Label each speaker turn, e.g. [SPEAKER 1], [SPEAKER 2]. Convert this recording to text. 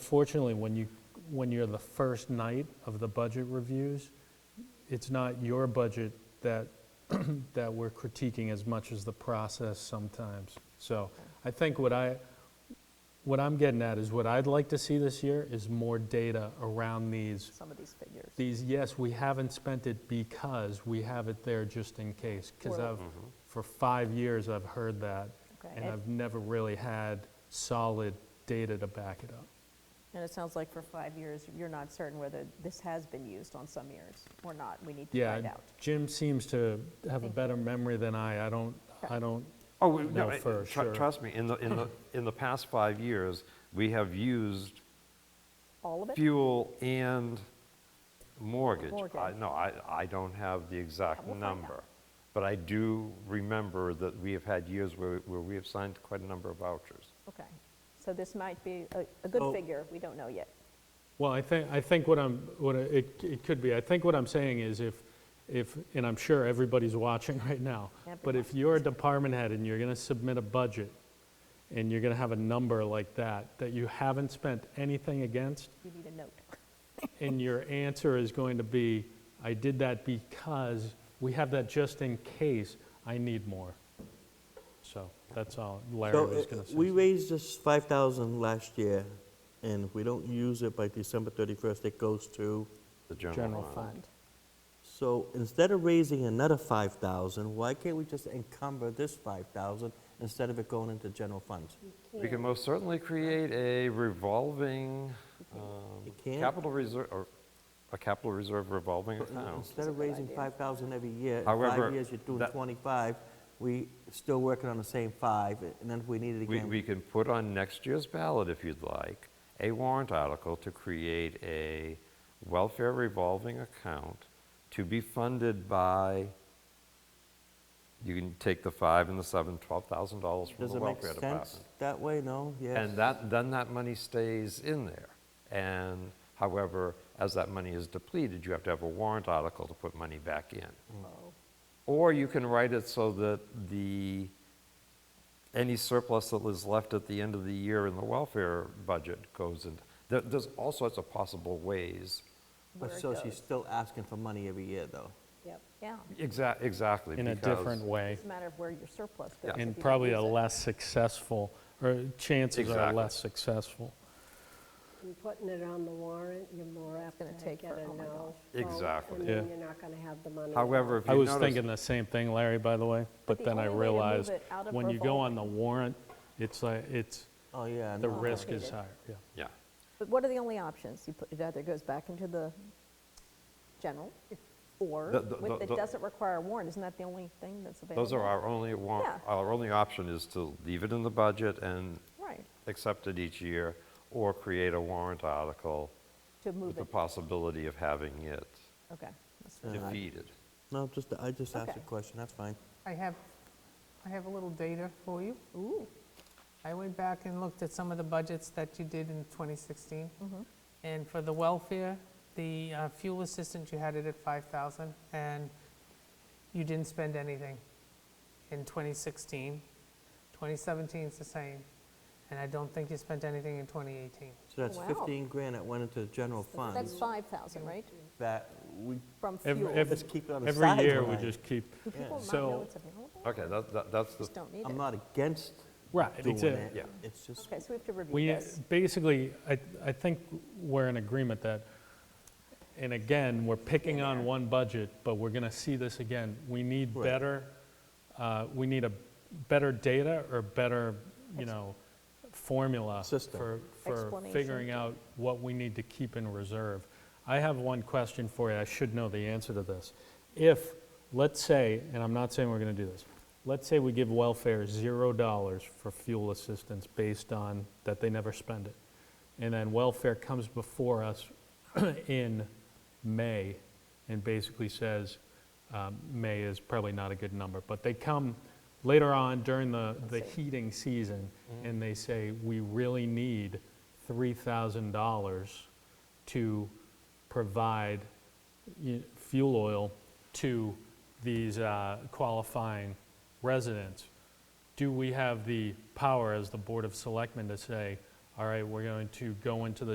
[SPEAKER 1] Unfortunately, when you, when you're the first night of the budget reviews, it's not your budget that, that we're critiquing as much as the process sometimes. So I think what I, what I'm getting at is what I'd like to see this year is more data around these
[SPEAKER 2] some of these figures.
[SPEAKER 1] these, yes, we haven't spent it because we have it there just in case. Because
[SPEAKER 2] Well-
[SPEAKER 1] I've, for five years, I've heard that,
[SPEAKER 2] Okay,
[SPEAKER 1] and
[SPEAKER 2] and-
[SPEAKER 1] I've never really had solid data to back it up.
[SPEAKER 2] And it sounds like for five years, you're not certain whether this has been used on some years or not. We need to
[SPEAKER 1] Yeah,
[SPEAKER 2] find out.
[SPEAKER 1] Jim seems to have a better memory than I. I don't, I don't,
[SPEAKER 3] Oh, we- no,
[SPEAKER 1] No,
[SPEAKER 3] I-
[SPEAKER 1] for
[SPEAKER 3] tru-
[SPEAKER 1] sure.
[SPEAKER 3] trust me, in the, in the, in the past five years, we have used
[SPEAKER 2] All of it?
[SPEAKER 3] fuel and mortgage.
[SPEAKER 2] Mortgage.
[SPEAKER 3] I- No, I, I don't have the exact
[SPEAKER 2] Yeah, we'll find out.
[SPEAKER 3] number, but I do remember that we have had years where, where we have signed quite a number of vouchers.
[SPEAKER 2] Okay. So this might be a, a good
[SPEAKER 1] Oh.
[SPEAKER 2] figure. We don't know yet.
[SPEAKER 1] Well, I think, I think what I'm, what I- it, it could be, I think what I'm saying is if, if, and I'm sure everybody's watching right now, but if
[SPEAKER 2] Everyone.
[SPEAKER 1] you're a department head and you're gonna submit a budget, and you're gonna have a number like that, that you haven't spent anything against,
[SPEAKER 2] You need a note.
[SPEAKER 1] and your answer is going to be, I did that because, we have that just in case, I need more. So, that's all Larry
[SPEAKER 4] So,
[SPEAKER 1] was
[SPEAKER 4] uh,
[SPEAKER 1] gonna say.
[SPEAKER 4] we raised this 5,000 last year, and if we don't use it by December 31st, it goes to,
[SPEAKER 3] The general
[SPEAKER 1] General
[SPEAKER 3] fund.
[SPEAKER 2] Fund.
[SPEAKER 4] so instead of raising another 5,000, why can't we just encumber this 5,000 instead of it going into general funds?
[SPEAKER 3] We can most certainly create a revolving,
[SPEAKER 4] You
[SPEAKER 3] um,
[SPEAKER 4] can't?
[SPEAKER 3] capital reserve, or a capital reserve revolving account.
[SPEAKER 4] Instead of
[SPEAKER 2] That's a good
[SPEAKER 4] raising
[SPEAKER 2] idea.
[SPEAKER 4] 5,000 every year, in
[SPEAKER 3] However,
[SPEAKER 4] five years, you're doing
[SPEAKER 3] that-
[SPEAKER 4] 25, we still working on the same five, and then if we need it
[SPEAKER 3] We,
[SPEAKER 4] again.
[SPEAKER 3] we can put on next year's ballot, if you'd like, a warrant article to create a welfare revolving account to be funded by, you can take the five and the seven, $12,000 from
[SPEAKER 4] Does
[SPEAKER 3] the
[SPEAKER 4] it make
[SPEAKER 3] welfare
[SPEAKER 4] sense
[SPEAKER 3] department.
[SPEAKER 4] that way? No? Yes?
[SPEAKER 3] And that, then that money stays in there. And however, as that money is depleted, you have to have a warrant article to put money back in.
[SPEAKER 2] Oh,
[SPEAKER 3] Or you can write it so that the, any surplus that is left at the end of the year in the welfare budget goes in. There, there's all sorts of possible ways.
[SPEAKER 2] where
[SPEAKER 4] But
[SPEAKER 2] it
[SPEAKER 4] so she's
[SPEAKER 2] goes.
[SPEAKER 4] still asking for money every year, though.
[SPEAKER 2] Yep, yeah.
[SPEAKER 3] Exac- exactly.
[SPEAKER 1] In a
[SPEAKER 3] because-
[SPEAKER 1] different way.
[SPEAKER 2] It's a matter of where your surplus goes.
[SPEAKER 3] Yeah.
[SPEAKER 2] if you
[SPEAKER 1] And
[SPEAKER 2] don't
[SPEAKER 1] probably
[SPEAKER 2] use
[SPEAKER 1] a
[SPEAKER 2] it.
[SPEAKER 1] less successful, or chances are
[SPEAKER 3] Exactly.
[SPEAKER 1] less successful.
[SPEAKER 5] And putting it on the warrant, you're more apt
[SPEAKER 2] gonna
[SPEAKER 5] to
[SPEAKER 2] take
[SPEAKER 5] get a
[SPEAKER 2] for- oh my gosh.
[SPEAKER 5] no. vote,
[SPEAKER 3] Exactly.
[SPEAKER 5] And
[SPEAKER 1] Yeah.
[SPEAKER 5] then you're not going to have the money.
[SPEAKER 3] However, if
[SPEAKER 1] I
[SPEAKER 3] you
[SPEAKER 1] was
[SPEAKER 3] notice-
[SPEAKER 1] thinking the same thing, Larry, by the way, but
[SPEAKER 2] the
[SPEAKER 1] then I
[SPEAKER 2] only way to move
[SPEAKER 1] realized,
[SPEAKER 2] it out of
[SPEAKER 1] when you go on the warrant, it's like, it's,
[SPEAKER 4] Oh, yeah.
[SPEAKER 1] the
[SPEAKER 4] no.
[SPEAKER 1] risk is
[SPEAKER 2] Complicated.
[SPEAKER 1] higher, yeah.
[SPEAKER 3] Yeah.
[SPEAKER 2] But what are the only options? You put, it either goes back into the general or
[SPEAKER 3] The- the-
[SPEAKER 2] with-
[SPEAKER 3] the-
[SPEAKER 2] it
[SPEAKER 3] the-
[SPEAKER 2] doesn't require a warrant. Isn't that the only thing that's available?
[SPEAKER 3] Those are our only, war-
[SPEAKER 2] Yeah.
[SPEAKER 3] our only option is to leave it in the budget and
[SPEAKER 2] Right,
[SPEAKER 3] accept it each year or create a warrant article
[SPEAKER 2] to
[SPEAKER 3] with
[SPEAKER 2] move
[SPEAKER 3] the
[SPEAKER 2] it.
[SPEAKER 3] possibility of having it
[SPEAKER 2] Okay. that's fine.
[SPEAKER 4] Uh,
[SPEAKER 3] defeated.
[SPEAKER 4] No, just, I just asked
[SPEAKER 2] Okay.
[SPEAKER 4] a question, that's fine.
[SPEAKER 6] I have, I have a little data for you.
[SPEAKER 2] Ooh,
[SPEAKER 6] I went back and looked at some of the budgets that you did in 2016. And for the welfare, the uh, fuel assistance, you had it at 5,000, and you didn't spend anything in 2016. 2017 is the same, and I don't think you spent anything in 2018.
[SPEAKER 4] So that's
[SPEAKER 2] Wow.
[SPEAKER 4] 15 grand that went into the general
[SPEAKER 2] that's
[SPEAKER 4] fund
[SPEAKER 2] 5,000, right?
[SPEAKER 4] that we,
[SPEAKER 2] From
[SPEAKER 1] Every-
[SPEAKER 2] fuel.
[SPEAKER 1] every-
[SPEAKER 2] Do
[SPEAKER 4] Just keep it on the
[SPEAKER 1] Every year, we
[SPEAKER 4] sideline.
[SPEAKER 1] just keep,
[SPEAKER 2] people not
[SPEAKER 1] so-
[SPEAKER 2] know it's available?
[SPEAKER 3] Okay, that, that- that's the,
[SPEAKER 2] Just don't need
[SPEAKER 4] I'm
[SPEAKER 2] it.
[SPEAKER 4] not against
[SPEAKER 1] right,
[SPEAKER 4] doing
[SPEAKER 1] exactly.
[SPEAKER 4] it.
[SPEAKER 3] Yeah.
[SPEAKER 4] It's just,
[SPEAKER 2] Okay, so we have to review
[SPEAKER 1] We,
[SPEAKER 2] this.
[SPEAKER 1] basically, I, I think we're in agreement that, and again, we're picking on one budget, but we're gonna see this again. We need
[SPEAKER 4] Right.
[SPEAKER 1] better, uh, we need a better data or better, you know, formula
[SPEAKER 4] System.
[SPEAKER 1] for, for
[SPEAKER 2] Explanation.
[SPEAKER 1] figuring out what we need to keep in reserve. I have one question for you, I should know the answer to this. If, let's say, and I'm not saying we're gonna do this, let's say we give welfare $0 for fuel assistance based on that they never spend it. And then welfare comes before us in May and basically says, um, May is probably not a good number, but they come later on during the, the heating season and they say, we really need $3,000 to provide y- fuel oil to these uh, qualifying residents. Do we have the power as the Board of Selectmen to say, all right, we're going to go into the